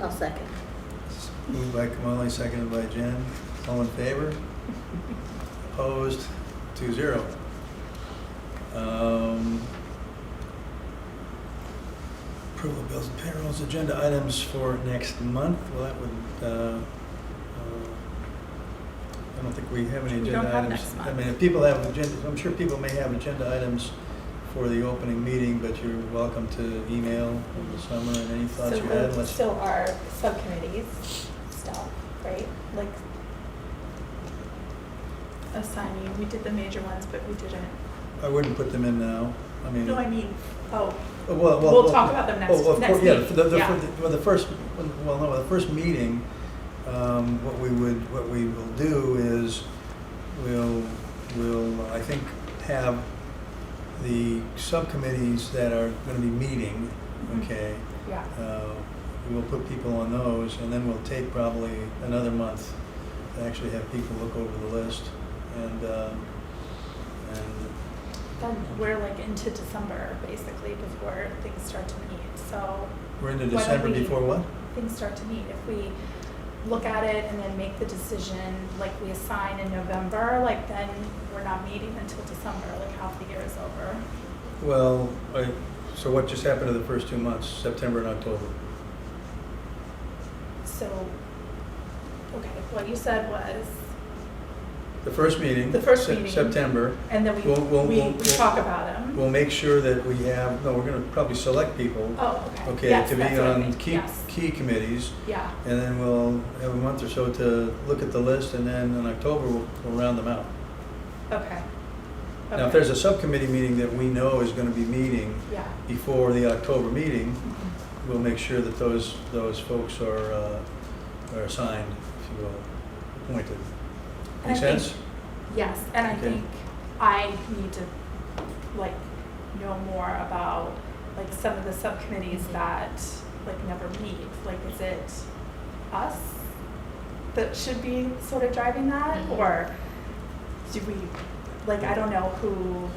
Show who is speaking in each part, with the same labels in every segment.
Speaker 1: I'll second.
Speaker 2: Moved by Kamali, seconded by Jen. All in favor? Opposed? Two zero. Um, Approval of bills and payrolls, agenda items for next month. Well, that would, uh, uh, I don't think we have any
Speaker 3: We
Speaker 2: agenda
Speaker 3: don't
Speaker 2: items.
Speaker 3: have next
Speaker 2: I
Speaker 3: month.
Speaker 2: mean, if people have agendas, I'm sure people may have agenda items for the opening meeting, but you're welcome to email in the summer and any thoughts
Speaker 4: So
Speaker 2: you had.
Speaker 4: the-
Speaker 2: Let's-
Speaker 4: So our subcommittees stuff, right? Like,
Speaker 3: assigning, we did the major ones, but we didn't.
Speaker 2: I wouldn't put them in now. I mean,
Speaker 3: No, I mean, oh,
Speaker 2: well, well,
Speaker 3: we'll talk about them next-
Speaker 2: well, of
Speaker 3: next
Speaker 2: course, yeah,
Speaker 3: meeting,
Speaker 2: the- the-
Speaker 3: yeah.
Speaker 2: the- Well, the first, well, no, the first meeting, um, what we would, what we will do is we'll, we'll, I think, have the subcommittees that are going to be meeting,
Speaker 3: Mhm.
Speaker 2: okay?
Speaker 3: yeah.
Speaker 2: Uh, We'll put people on those, and then we'll take probably another month to actually have people look over the list and, um, and
Speaker 4: then we're like into December basically before things start to meet, so
Speaker 2: We're into
Speaker 4: Why don't
Speaker 2: December
Speaker 4: we-
Speaker 2: before what?
Speaker 4: things start to meet. If we look at it and then make the decision, like we assign in November, like then we're not meeting until December, like half the year is over.
Speaker 2: Well, I, so what just happened to the first two months, September and October?
Speaker 4: So, okay, what you said was,
Speaker 2: The first meeting.
Speaker 4: The first
Speaker 2: Sep-
Speaker 4: meeting.
Speaker 2: September.
Speaker 4: and then we,
Speaker 2: We'll- we'll-
Speaker 4: we,
Speaker 2: we'll-
Speaker 4: we
Speaker 2: we'll-
Speaker 4: talk about them.
Speaker 2: We'll make sure that we have, no, we're gonna probably select people,
Speaker 4: Oh, okay.
Speaker 2: okay,
Speaker 4: Yes,
Speaker 2: to be
Speaker 4: that's what I
Speaker 2: on
Speaker 4: meant.
Speaker 2: key,
Speaker 4: Yes.
Speaker 2: key committees.
Speaker 4: Yeah,
Speaker 2: And then we'll have a month or so to look at the list, and then in October, we'll, we'll round them out.
Speaker 4: okay.
Speaker 2: Now, if
Speaker 4: Okay.
Speaker 2: there's a subcommittee meeting that we know is gonna be meeting
Speaker 4: Yeah. Mm-hmm.
Speaker 2: before the October meeting, we'll make sure that those, those folks are, uh, are assigned, if you will, appointed.
Speaker 4: And
Speaker 2: Make
Speaker 4: I think-
Speaker 2: sense?
Speaker 4: Yes, and I
Speaker 2: Okay.
Speaker 4: think I need to, like, know more about, like, some of the subcommittees that, like, never meet. Like, is it us that should be sort of driving that, or do we, like, I don't know who,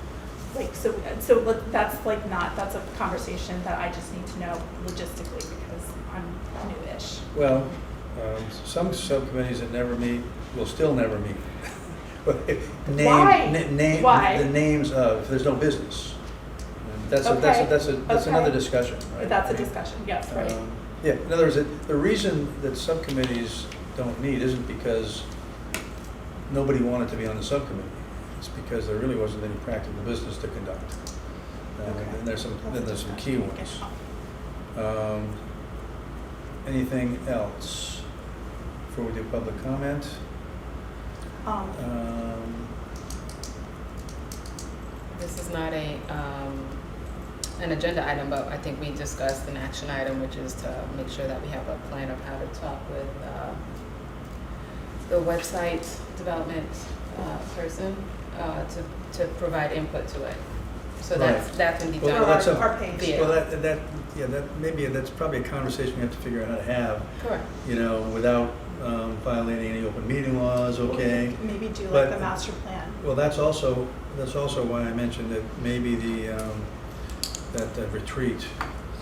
Speaker 4: like, so, so let- that's like not, that's a conversation that I just need to know logistically because I'm newish.
Speaker 2: Well, um, some subcommittees that never meet will still never meet. Name-
Speaker 4: Why?
Speaker 2: na- name-
Speaker 4: Why?
Speaker 2: The names of, there's no business. That's, a- that's, a-
Speaker 4: Okay,
Speaker 2: that's, a- that's
Speaker 4: okay.
Speaker 2: another discussion, right?
Speaker 4: That's a discussion, yes, right?
Speaker 2: Um, Yeah, in other words, it- the reason that subcommittees don't meet isn't because nobody wanted to be on the subcommittee. It's because there really wasn't any practical business to conduct. Um,
Speaker 4: Okay.
Speaker 2: And there's some,
Speaker 4: That's a
Speaker 2: then there's some key
Speaker 4: discussion.
Speaker 2: ones. Um, Anything else before we do public comment?
Speaker 4: Um,
Speaker 2: Um,
Speaker 5: This is not a, um, an agenda item, but I think we discussed an action item, which is to make sure that we have a plan of how to talk with, uh, the website development, uh, person, uh, to, to provide input to it. So that's,
Speaker 2: Right.
Speaker 5: that's gonna be
Speaker 2: Well,
Speaker 5: done.
Speaker 2: well, that's a-
Speaker 4: Our page.
Speaker 5: Yeah.
Speaker 2: Well, that, that, yeah, that, maybe that's probably a conversation we have to figure out how to have,
Speaker 5: Correct.
Speaker 2: you know, without um, violating any open meeting laws, okay?
Speaker 4: Maybe do
Speaker 2: But-
Speaker 4: like the master plan.
Speaker 2: Well, that's also, that's also why I mentioned that maybe the, um, that the retreat,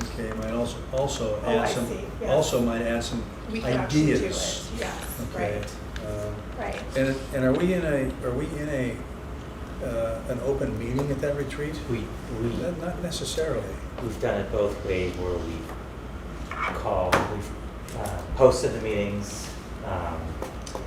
Speaker 2: okay, might also, also
Speaker 4: Oh,
Speaker 2: add
Speaker 4: I
Speaker 2: some,
Speaker 4: see, yes.
Speaker 2: also might add some
Speaker 4: We could actually do it,
Speaker 2: ideas.
Speaker 4: yes,
Speaker 2: okay?
Speaker 4: right,
Speaker 2: Um,
Speaker 4: right.
Speaker 2: And, and are we in a, are we in a, uh, an open meeting at that retreat?
Speaker 6: We, we,
Speaker 2: Not not necessarily.
Speaker 6: we've done it both ways where we call, we've uh, posted the meetings. um,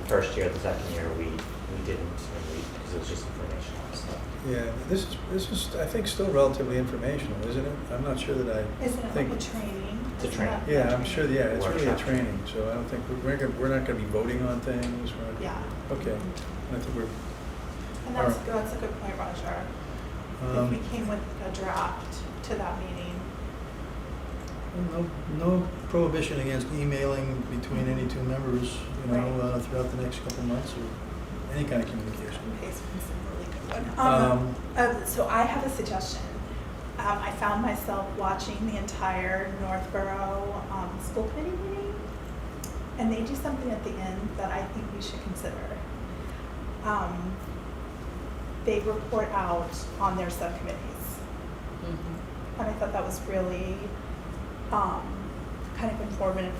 Speaker 6: First year, the second year, we, we didn't, and we, because it was just informational, so.
Speaker 2: Yeah, this is, this is, I think, still relatively informational, isn't it? I'm not sure that I
Speaker 4: Isn't it like
Speaker 2: think.
Speaker 4: a training?
Speaker 6: It's a
Speaker 4: Isn't
Speaker 6: training.
Speaker 4: that-
Speaker 2: Yeah, I'm sure, yeah, it's really a
Speaker 6: Workshop.
Speaker 2: training, so I don't think, we're, gonna- we're not gonna be voting on things, we're not-
Speaker 4: Yeah,
Speaker 2: Okay, I think we're.
Speaker 4: and that's,
Speaker 2: Alright.
Speaker 4: that's a good point, Roger. If
Speaker 2: um,
Speaker 4: we came with a draft to that meeting,
Speaker 2: No, no prohibition against emailing between any two members, you know,
Speaker 4: Right.
Speaker 2: uh, throughout the next couple months or any kind of communication.
Speaker 4: in case it's a really good one.
Speaker 2: Um,
Speaker 4: Um, uh, so I have a suggestion. Um, I found myself watching the entire Northborough, um, school committee meeting, and they do something at the end that I think we should consider. Um, they report out on their subcommittees.
Speaker 5: Mhm.
Speaker 4: And I thought that was really um, kind of informative